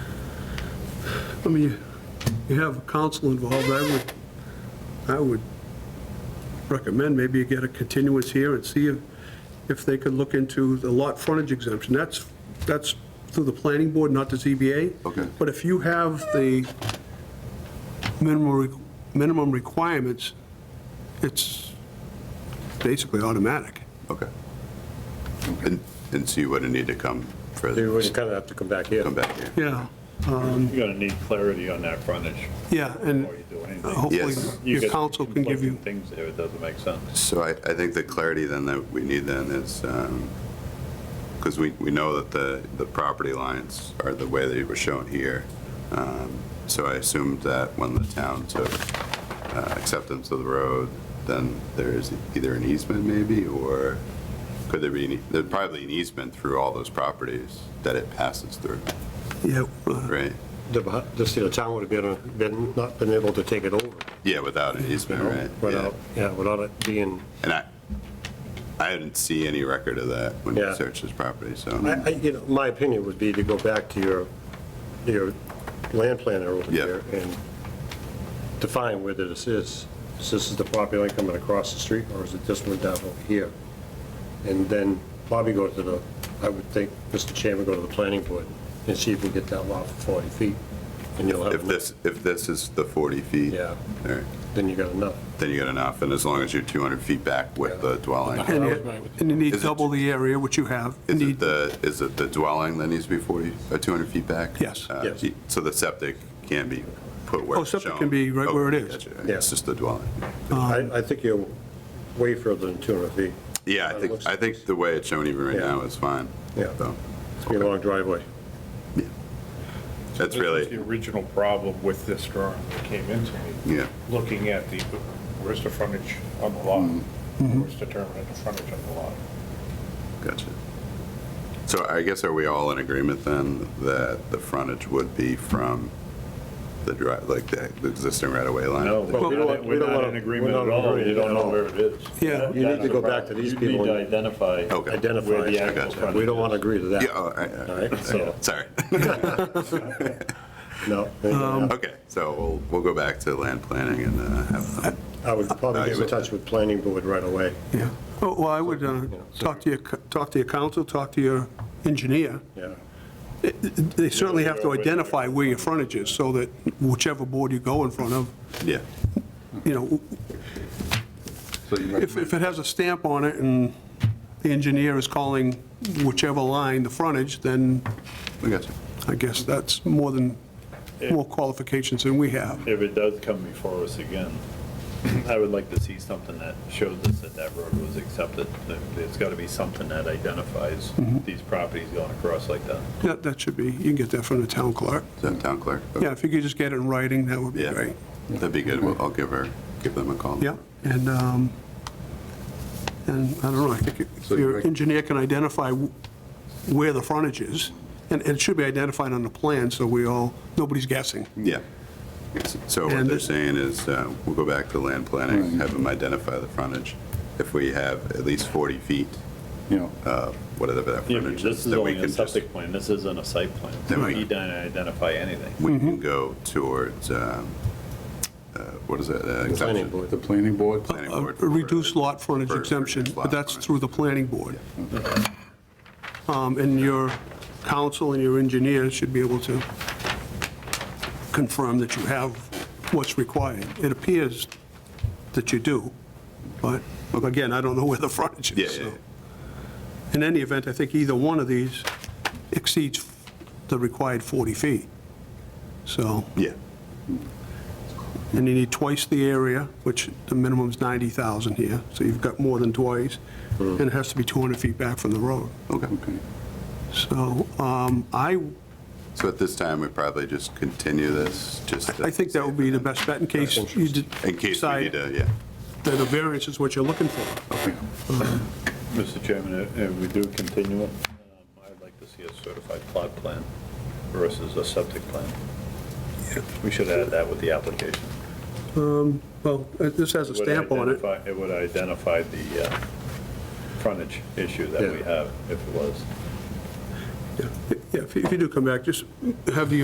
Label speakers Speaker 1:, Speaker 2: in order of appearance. Speaker 1: I mean, you- you have council involved, I would, I would recommend maybe you get a continuance here and see if, if they could look into the lot frontage exemption. That's, that's through the planning board, not the ZBA.
Speaker 2: Okay.
Speaker 1: But if you have the minimum, re- minimum requirements, it's basically automatic.
Speaker 2: Okay. And, and see what it need to come
Speaker 3: You
Speaker 2: further,
Speaker 3: would kind of have to come back here.
Speaker 2: come back here.
Speaker 1: Yeah,
Speaker 4: You're gonna need clarity on that frontage
Speaker 1: yeah, and
Speaker 4: before you do anything.
Speaker 1: hopefully
Speaker 2: Yes.
Speaker 4: You
Speaker 1: your
Speaker 4: get
Speaker 1: council can give you,
Speaker 4: conflicting Things there, it doesn't make sense.
Speaker 2: So I, I think the clarity then that we need then is, because we, we know that the, the property lines are the way they were shown here. Um, So I assumed that when the town took uh, acceptance of the road, then there's either an easement maybe, or could there be, an e- there'd probably an easement through all those properties that it passes through,
Speaker 1: yeah, uh,
Speaker 2: right?
Speaker 3: The, beh- the see, the town would have been, uh, been, not been able to take it over.
Speaker 2: Yeah, without an
Speaker 3: you
Speaker 2: easement,
Speaker 3: know,
Speaker 2: right? Yeah.
Speaker 3: Without, yeah, without it being,
Speaker 2: And I, I didn't see any record of that when you
Speaker 3: Yeah.
Speaker 2: searched this property, so.
Speaker 3: I, I, you know, my opinion would be to go back to your, your land planner over
Speaker 2: Yeah.
Speaker 3: there and define whether this is, is this is the property line coming across the street, or is it this one down over here? And then probably go to the, I would think, Mr. Chairman, go to the planning board and see if we get that lot for 40 feet, and you'll have,
Speaker 2: If
Speaker 3: enough.
Speaker 2: this, if this is the 40 feet.
Speaker 3: Yeah.
Speaker 2: all right,
Speaker 3: then you got enough.
Speaker 2: Then you got enough, and as long as you're 200 feet back with the dwelling.
Speaker 1: And you- and you need
Speaker 2: Is it-
Speaker 1: double the area, which you have. You
Speaker 2: Is it
Speaker 1: need-
Speaker 2: the, is it the dwelling that needs to be 40, or 200 feet back?
Speaker 1: Yes.
Speaker 2: Uh,
Speaker 3: Yes.
Speaker 2: y- So the septic can be put where
Speaker 1: Oh,
Speaker 2: it's shown?
Speaker 1: septic can be right where it
Speaker 2: Okay,
Speaker 1: is.
Speaker 2: gotcha.
Speaker 3: Yeah.
Speaker 2: It's just the dwelling.
Speaker 3: I, I think you're way further than 200 feet.
Speaker 2: Yeah,
Speaker 3: Uh,
Speaker 2: I
Speaker 3: it
Speaker 2: think,
Speaker 3: looks-
Speaker 2: I think the way it's shown even right
Speaker 3: Yeah.
Speaker 2: now is fine.
Speaker 3: Yeah.
Speaker 2: So,
Speaker 3: It's gonna be a long driveway.
Speaker 2: That's
Speaker 4: This is
Speaker 2: really,
Speaker 4: The original problem with this drawing that came into me,
Speaker 2: yeah,
Speaker 4: looking at the, where's the frontage on the
Speaker 3: Mm-hmm.
Speaker 4: lot? Where's determinant of frontage on the lot?
Speaker 2: gotcha. So I guess are we all in agreement then that the frontage would be from the drive, like the the existing right-of-way line?
Speaker 4: No,
Speaker 3: Well, we don't want- we
Speaker 4: we're
Speaker 3: don't
Speaker 4: not
Speaker 3: want-
Speaker 4: in agreement
Speaker 3: we're
Speaker 4: at
Speaker 3: not
Speaker 4: all,
Speaker 3: agreeing
Speaker 4: you don't
Speaker 3: at
Speaker 4: know
Speaker 3: all.
Speaker 4: where it is.
Speaker 1: Yeah,
Speaker 3: you need
Speaker 4: That's
Speaker 3: to go
Speaker 4: the
Speaker 3: back to
Speaker 4: problem.
Speaker 3: these
Speaker 4: You
Speaker 3: people
Speaker 4: need to
Speaker 3: and
Speaker 4: identify.
Speaker 2: Okay.
Speaker 3: Identify.
Speaker 4: Where the
Speaker 3: it.
Speaker 4: actual
Speaker 2: gotcha.
Speaker 4: frontage
Speaker 3: We don't want to
Speaker 4: is.
Speaker 3: agree to
Speaker 2: Yeah, oh,
Speaker 3: that,
Speaker 2: all right, all
Speaker 3: all
Speaker 2: right.
Speaker 3: right? So,
Speaker 2: Sorry.
Speaker 3: no. I
Speaker 2: Okay, so we'll, we'll go back to land planning and uh, have them.
Speaker 3: would probably get in touch with planning board right away.
Speaker 1: Yeah. Oh, Well, I would uh, talk to your, c- talk to your council, talk to your engineer.
Speaker 3: Yeah.
Speaker 1: They certainly have to identify where your frontage is, so that whichever board you go in front of,
Speaker 2: Yeah,
Speaker 1: you know, if, if it has a stamp on it and the engineer is calling whichever line the frontage, then
Speaker 2: we got you.
Speaker 1: I guess that's more than, more qualifications than we have.
Speaker 4: If it does come before us again, I would like to see something that shows us that that road was accepted. There- There's got to be something that identifies these properties going across like that.
Speaker 1: That, that should be, you can get that from the town clerk.
Speaker 2: Is that town clerk?
Speaker 1: Yeah, if you could just get it in writing, that would be
Speaker 2: Yeah,
Speaker 1: great.
Speaker 2: that'd be good. Well, I'll give her, give them a call.
Speaker 1: Yeah, and, um, and I don't know, I think if
Speaker 2: So you're-
Speaker 1: your engineer can identify w- where the frontage is, and and it should be identified on the plan, so we all, nobody's guessing.
Speaker 2: Yeah. Yes, So what
Speaker 1: And-
Speaker 2: they're saying is, uh, we'll go back to land planning, have them identify the frontage. If we have at least 40 feet,
Speaker 5: you know,
Speaker 2: uh, whatever that
Speaker 4: Yeah,
Speaker 2: frontage is,
Speaker 4: This is
Speaker 2: then we
Speaker 4: only a
Speaker 2: can just,
Speaker 4: septic plan, this isn't a site plan.
Speaker 2: Then we-
Speaker 4: You don't identify anything.
Speaker 2: we can
Speaker 1: Mm-hmm.
Speaker 2: go towards, um, uh, what is that? uh,
Speaker 3: Planning
Speaker 2: exemption?
Speaker 3: board.
Speaker 5: the planning board,
Speaker 2: Planning
Speaker 1: A
Speaker 2: board.
Speaker 1: Uh, reduced lot frontage
Speaker 2: For- for
Speaker 1: exemption,
Speaker 2: reduced
Speaker 1: but
Speaker 2: lot
Speaker 1: that's
Speaker 2: frontage.
Speaker 1: through the planning board. Um, And your council and your engineer should be able to confirm that you have what's required. It appears that you do, but again, I don't know where the frontage
Speaker 2: Yeah,
Speaker 1: is,
Speaker 2: yeah,
Speaker 1: so. In any event, I think either one of these exceeds the required 40 feet. So,
Speaker 2: yeah.
Speaker 1: and you need twice the area, which the minimum's 90,000 here, so you've got more than twice, and it has to be 200 feet back from the road.
Speaker 2: Okay.
Speaker 1: So um, I,
Speaker 2: So at this time, we probably just continue this, just.
Speaker 1: I think that would be the best bet in case you did
Speaker 2: In case we need
Speaker 1: decide
Speaker 2: to, yeah.
Speaker 1: that a variance is what you're looking for.
Speaker 4: Mr. Chairman, if- if we do continue it, um, I'd like to see a certified plot plan versus a septic plan. We should add that with the application.
Speaker 1: Well, uh, this has a
Speaker 4: It would
Speaker 1: stamp on it.
Speaker 4: identify- It would identify the uh, frontage issue that we
Speaker 3: Yeah.
Speaker 4: have, if it was.
Speaker 1: Yeah, If you if you do come back, just have the